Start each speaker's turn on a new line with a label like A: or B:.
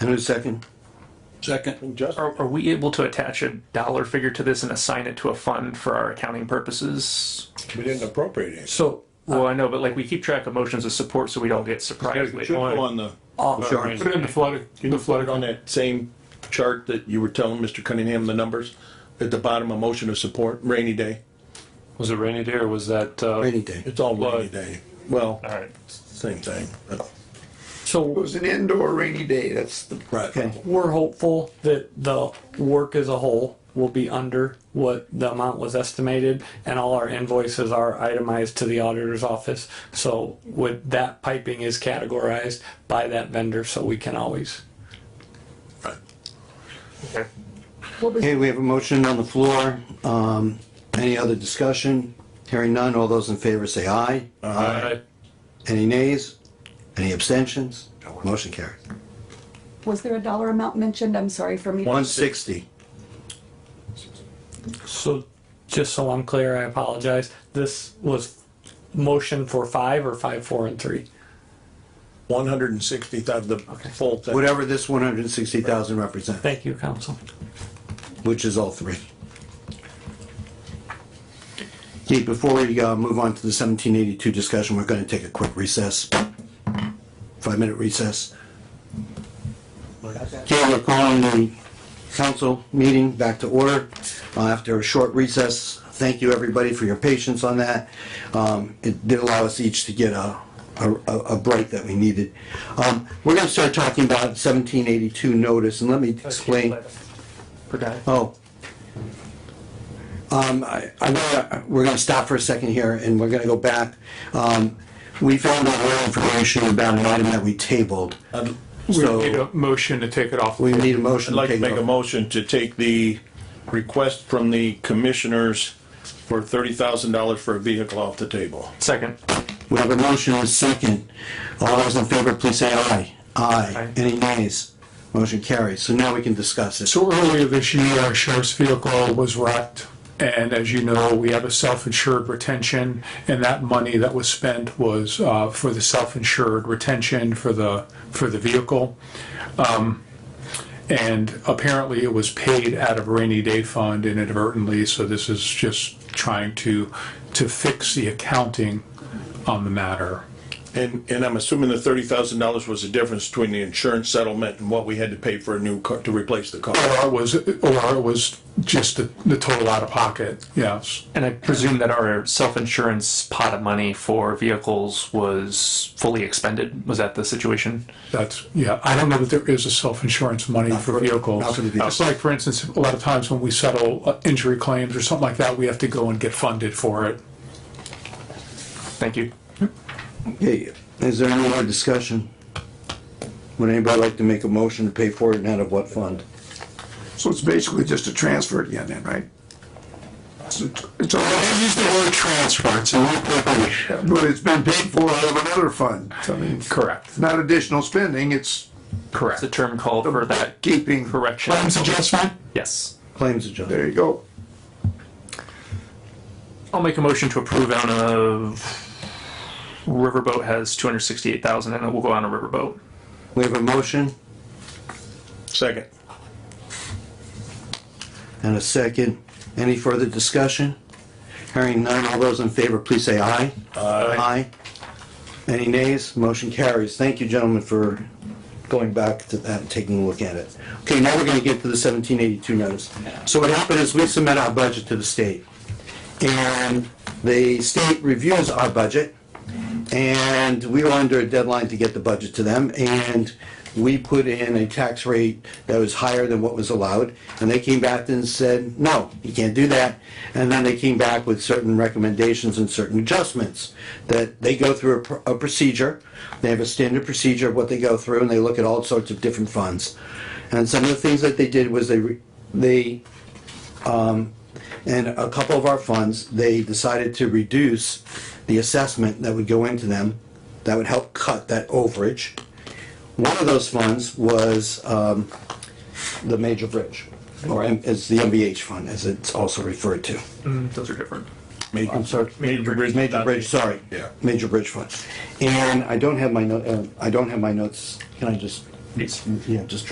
A: And a second.
B: Second.
C: Oh.
D: Are, are we able to attach a dollar figure to this and assign it to a fund for our accounting purposes?
B: We didn't appropriate it.
E: So
D: Well, I know, but like we keep track of motions of support so we don't get surprised
C: Should
D: later.
C: go on the,
A: Sure.
C: put it in the flood, the flood.
B: On that same chart that you were telling Mr. Cunningham the numbers, at the bottom, a motion of support, rainy day.
C: Was it rainy day or was that, uh?
A: Rainy day.
B: It's all rainy
C: Flood.
B: day. Well,
C: All right.
B: same thing.
E: so
F: was an indoor rainy day, that's the.
B: Right.
A: Okay.
E: we're hopeful that the work as a whole will be under what the amount was estimated and all our invoices are itemized to the auditor's office. So with that piping is categorized by that vendor, so we can always
A: Okay, we have a motion on the floor. Um, any other discussion? Hearing none, all those in favor say aye.
C: Aye.
A: Any nays? Any abstentions? Motion carries.
G: Was there a dollar amount mentioned? I'm sorry for me.
A: One sixty.
E: So, just so I'm clear, I apologize. This was motion for five or five, four, and three.
B: One hundred and sixty thousand, the full thing.
A: Whatever this one hundred and sixty thousand represents,
E: Thank you, council.
A: which is all three. Okay, before we, uh, move on to the seventeen eighty-two discussion, we're gonna take a quick recess. Five-minute recess. Okay, we're calling the council meeting back to order uh, after a short recess. Thank you, everybody, for your patience on that. Um, It did allow us each to get a, a, a a break that we needed. Um, We're gonna start talking about seventeen eighty-two notice, and let me explain. Oh. Um, I, I, wanna- we're gonna stop for a second here, and we're gonna go back. Um, We found out more information about an item that we tabled.
B: I'd
C: We
A: So-
C: need a motion to take it off.
A: we need a motion.
B: I'd like to
A: take
B: make a
A: vote.
B: motion to take the request from the commissioners for thirty thousand dollars for a vehicle off the table.
C: Second.
A: We have a motion and a second. All those in favor, please say aye. Aye.
C: Aye.
A: Any nays? Motion carries. So now we can discuss it.
C: So earlier this year, our sheriff's vehicle was wrecked. And as you know, we have a self-insured retention and that money that was spent was, uh, for the self-insured retention for the, for the vehicle. Um, And apparently it was paid out of rainy day fund inadvertently, so this is just trying to, to fix the accounting on the matter.
B: And, and I'm assuming the thirty thousand dollars was the difference between the insurance settlement and what we had to pay for a new car, to replace the car.
C: Or it was, or it was just the, the total out of pocket, yes.
H: And I presume that our self-insurance pot of money for vehicles was fully expended? Was that the situation?
C: That's, yeah, I don't know that there is a self-insurance money for
A: for-
C: vehicles.
A: not for the vehicles.
C: It's like, for instance, a lot of times when we settle uh, injury claims or something like that, we have to go and get funded for it.
H: Thank you.
A: Okay, is there any more discussion? Would anybody like to make a motion to pay for it and out of what fund?
F: So it's basically just a transfer again then, right? So It's all,
I: They use the word transfer, it's a appropriation.
F: but it's been paid for out of another fund. So, I mean,
C: Correct.
F: It's not additional spending, it's
H: Correct. The term called for that
F: keeping,
H: correction.
I: Claims adjustment?
H: Yes.
A: Claims adjustment.
F: there you go.
H: I'll make a motion to approve out of Riverboat has two hundred sixty-eight thousand and it will go on a Riverboat.
A: We have a motion
B: Second.
A: and a second. Any further discussion? Hearing none, all those in favor, please say aye. Aye. Any nays? Motion carries. Thank you, gentlemen, for going back to that and taking a look at it. Okay, now we're gonna get to the seventeen eighty-two notice. So what happened is we submit our budget to the state. And the state reviews our budget. And we were under a deadline to get the budget to them, and we put in a tax rate that was higher than what was allowed. And they came back and said, no, you can't do that. And then they came back with certain recommendations and certain adjustments that they go through a, pr- a procedure. They have a standard procedure of what they go through, and they look at all sorts of different funds. And some of the things that they did was they, re- they and a couple of our funds, they decided to reduce the assessment that would go into them, that would help cut that overage. One of those funds was um, the major bridge, or M- it's the MBH fund, as it's also referred to.
H: Those are different.
A: I'm sorry.
B: Major Bridge.
A: Major Bridge, sorry.
B: Yeah.
A: Major Bridge Fund. And I don't have my, no- uh, I don't have my notes, can I just?
H: Yes.
A: Yeah, just